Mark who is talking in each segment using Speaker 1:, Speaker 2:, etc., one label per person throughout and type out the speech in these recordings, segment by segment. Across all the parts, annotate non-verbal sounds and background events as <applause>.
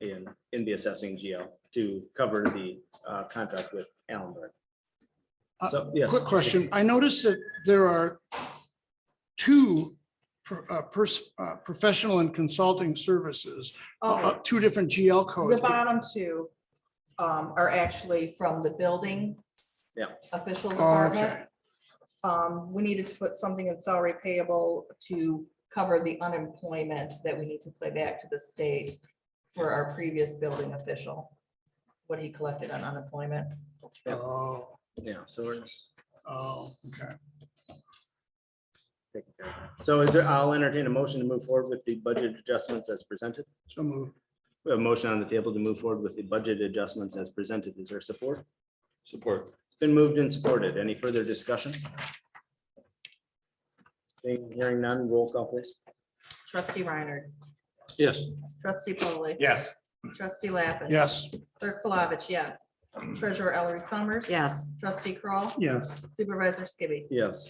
Speaker 1: in, in the assessing GL to cover the uh, contract with Allenberg.
Speaker 2: Uh,
Speaker 1: So, yes.
Speaker 2: Quick question. I noticed that there are two pro- uh, pers- uh, professional and consulting services, uh,
Speaker 3: Oh,
Speaker 2: uh, oh, two different GL
Speaker 3: the
Speaker 2: codes.
Speaker 3: bottom two um, are actually from the building.
Speaker 1: Yeah.
Speaker 3: Official
Speaker 2: Oh, Okay,
Speaker 3: department. Um, we needed to put something in salary payable to cover the unemployment that we need to play back to the state for our previous building official. What he collected on unemployment.
Speaker 1: Yeah.
Speaker 2: oh,
Speaker 1: Yeah, so we're just
Speaker 2: oh, okay.
Speaker 1: taking care of that. So is there, I'll entertain a motion to move forward with the budget adjustments as presented.
Speaker 2: So moved.
Speaker 1: We have a motion on the table to move forward with the budget adjustments as presented. Is there support? It's
Speaker 4: Support.
Speaker 1: Been moved and supported. Any further discussion? Seeing, hearing none, roll call please.
Speaker 3: Trustee Reiner,
Speaker 4: Yes.
Speaker 3: trustee polley
Speaker 4: Yes.
Speaker 3: trustee Lappin.
Speaker 2: Yes.
Speaker 3: Clerk Palovich, yes. Treasurer Ellery Summers.
Speaker 5: yes,
Speaker 3: Trustee Kroll,
Speaker 2: Yes.
Speaker 3: Supervisor Skibby.
Speaker 1: Yes.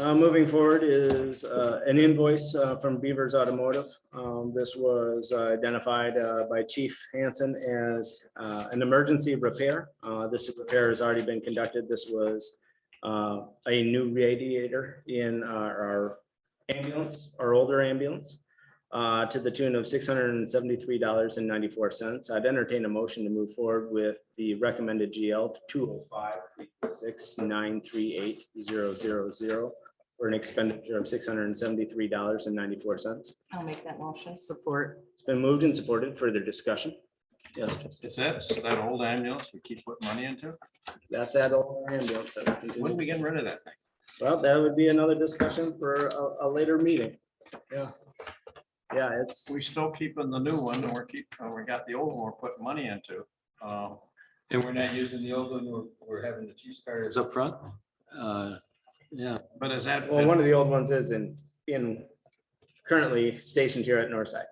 Speaker 1: Uh, Moving forward is uh, an invoice uh, from Beavers Automotive. Um, This was uh, identified uh, by Chief Hanson as uh, an emergency repair. Uh, This repair has already been conducted. This was uh, a new radiator in our our ambulance, our older ambulance, uh, to the tune of $673.94. I'd entertain a motion to move forward with the recommended GL 205 six nine three eight zero zero zero for an expenditure of six hundred and seventy-three dollars and ninety-four cents.
Speaker 3: I'll make that motion.
Speaker 5: support,
Speaker 1: It's been moved and supported. Further discussion? Yes, Jesse.
Speaker 4: Is that, is that old ambulance we keep putting money into?
Speaker 1: that's that all. our ambulance that we can
Speaker 4: When are
Speaker 1: do.
Speaker 4: we getting rid of that thing?
Speaker 1: Well, that would be another discussion for a, a later meeting. Yeah. Yeah, it's,
Speaker 4: We still keeping the new one and we're keep, and we got the old one we're putting money into. Um,
Speaker 6: And we're not using the old one, we're, we're having the chief's car is up front. Uh, Yeah,
Speaker 4: But is that,
Speaker 1: well, one of the old ones is in, in, currently stationed here at Northside.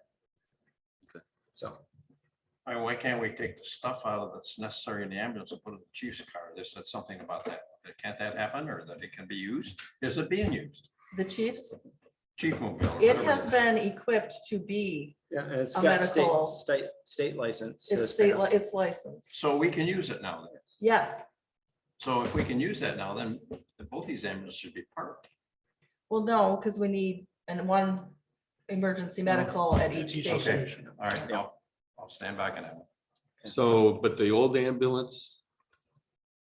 Speaker 1: So.
Speaker 4: I mean, why can't we take the stuff out of that's necessary in the ambulance and put it in the chief's car? They said something about that. Can't that happen or that it can be used? Is it being used?
Speaker 3: The chiefs,
Speaker 4: Chief mobile. or
Speaker 3: it
Speaker 4: whatever
Speaker 3: has been equipped to be,
Speaker 1: Yeah, and it's
Speaker 3: A
Speaker 1: got state,
Speaker 3: medical-
Speaker 1: state, state license.
Speaker 3: it's
Speaker 1: has
Speaker 3: state,
Speaker 1: passed.
Speaker 3: li- it's licensed.
Speaker 4: So we can use it now. then.
Speaker 3: Yes.
Speaker 4: So if we can use that now, then both these ambulances should be parked.
Speaker 3: Well, no, because we need, and one emergency medical at each
Speaker 2: Each
Speaker 3: station.
Speaker 2: station.
Speaker 4: All right, now, I'll stand back on that. one.
Speaker 6: so, but the old ambulance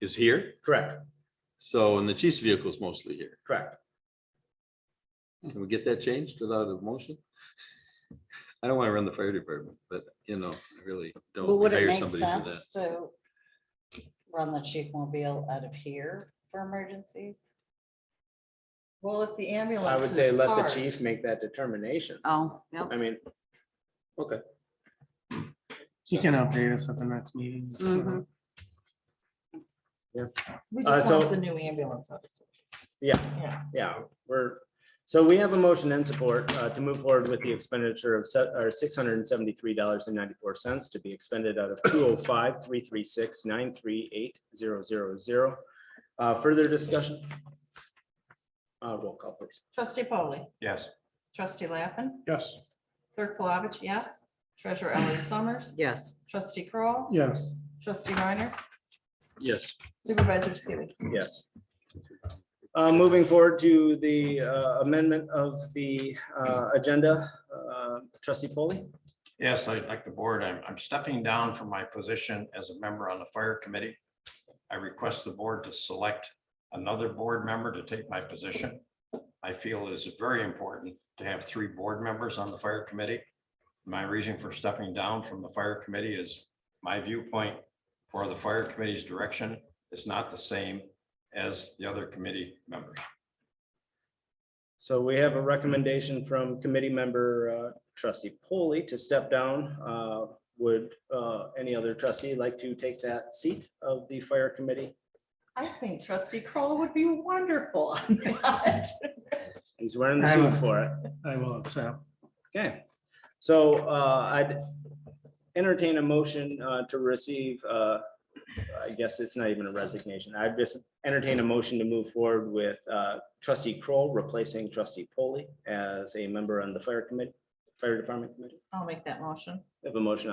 Speaker 6: is here,
Speaker 1: Correct,
Speaker 6: so, and the chief's vehicle is mostly here.
Speaker 1: correct.
Speaker 6: Can we get that changed without a motion? <laughs> I don't want to run the fire department, but you know, I really don't.
Speaker 5: but would it
Speaker 6: hire
Speaker 5: make
Speaker 6: somebody for that.
Speaker 5: sense to run the chief mobile out of here for emergencies?
Speaker 3: Well, if the Uh, ambulance.
Speaker 1: I would say
Speaker 3: is
Speaker 1: let the
Speaker 3: parked-
Speaker 1: chief make that determination.
Speaker 5: Oh, yeah.
Speaker 1: I mean,
Speaker 7: You can update us at the next meeting.
Speaker 5: Mhm.
Speaker 3: We
Speaker 1: Uh,
Speaker 3: just
Speaker 1: so-
Speaker 3: want the new ambulance. obviously.
Speaker 1: yeah,
Speaker 3: Yeah.
Speaker 1: yeah, we're, so we have a motion and support uh, to move forward with the expenditure of set, or six hundred and seventy-three dollars and ninety-four cents to be expended out of two oh five, three, three, six, nine, three, eight, zero, zero, zero. Uh, further discussion? Uh, roll call please.
Speaker 3: Trustee polley
Speaker 4: Yes.
Speaker 3: trustee Lappin,
Speaker 2: Yes.
Speaker 3: clerk Palovich, yes. Treasurer Ellery Summers,
Speaker 5: Yes,
Speaker 3: trustee Kroll,
Speaker 7: Yes,
Speaker 3: trustee Reiner,
Speaker 6: Yes,
Speaker 3: supervisor Skibby.
Speaker 1: Yes. Uh, moving forward to the uh, amendment of the, uh, agenda, uh, trustee polley
Speaker 4: Yes, I like the board. I'm, I'm stepping down from my position as a member on the fire committee. I request the board to select another board member to take my position. I feel it is very important to have three board members on the fire committee. My reason for stepping down from the fire committee is my viewpoint for the fire committee's direction is not the same as the other committee members.
Speaker 1: So we have a recommendation from committee member uh, trustee Polly to step down. Uh, Would uh, any other trustee like to take that seat of the fire committee?
Speaker 3: I think trustee Kroll would be wonderful on that.
Speaker 1: He's wearing the suit for it.
Speaker 7: I will accept.
Speaker 1: Okay, so uh, I'd entertain a motion uh, to receive, uh, I guess it's not even a resignation. I'd just entertain a motion to move forward with uh, trustee Kroll replacing trustee Polly as a member on the fire committee, fire department committee.
Speaker 3: I'll make that motion.
Speaker 1: We Have a motion